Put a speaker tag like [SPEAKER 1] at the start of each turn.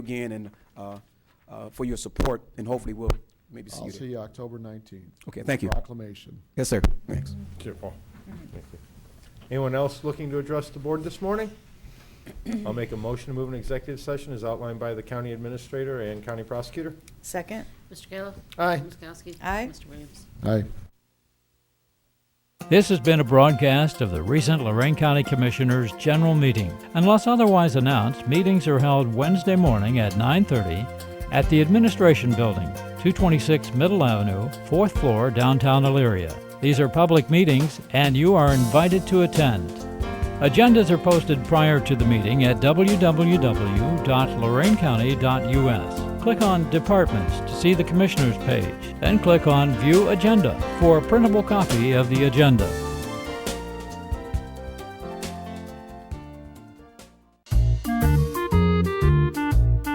[SPEAKER 1] again and uh, uh, for your support, and hopefully we'll maybe see
[SPEAKER 2] I'll
[SPEAKER 1] you
[SPEAKER 2] see
[SPEAKER 1] there.
[SPEAKER 2] you October 19th.
[SPEAKER 1] Okay, thank you.
[SPEAKER 2] Proclamation.
[SPEAKER 1] Yes, sir. Thanks.
[SPEAKER 3] Thank you, Paul. Anyone else looking to address the board this morning? I'll make a motion to move an executive session as outlined by the county administrator and county prosecutor.
[SPEAKER 4] Second?
[SPEAKER 5] Mr. Kayla?
[SPEAKER 3] Aye.
[SPEAKER 5] Ms. Kowski?
[SPEAKER 4] Aye.
[SPEAKER 5] Mr. Williams?
[SPEAKER 2] Aye.
[SPEAKER 6] This has been a broadcast of the recent Lorraine County Commissioners' General Meeting. Unless otherwise announced, meetings are held Wednesday morning at 9:30 at the Administration Building, 226 Middle Avenue, 4th floor, downtown Elyria. These are public meetings, and you are invited to attend. Agendas are posted prior to the meeting at www.lorainecounty.us. Click on Departments to see the Commissioners page, then click on View Agenda for a printable copy of the agenda.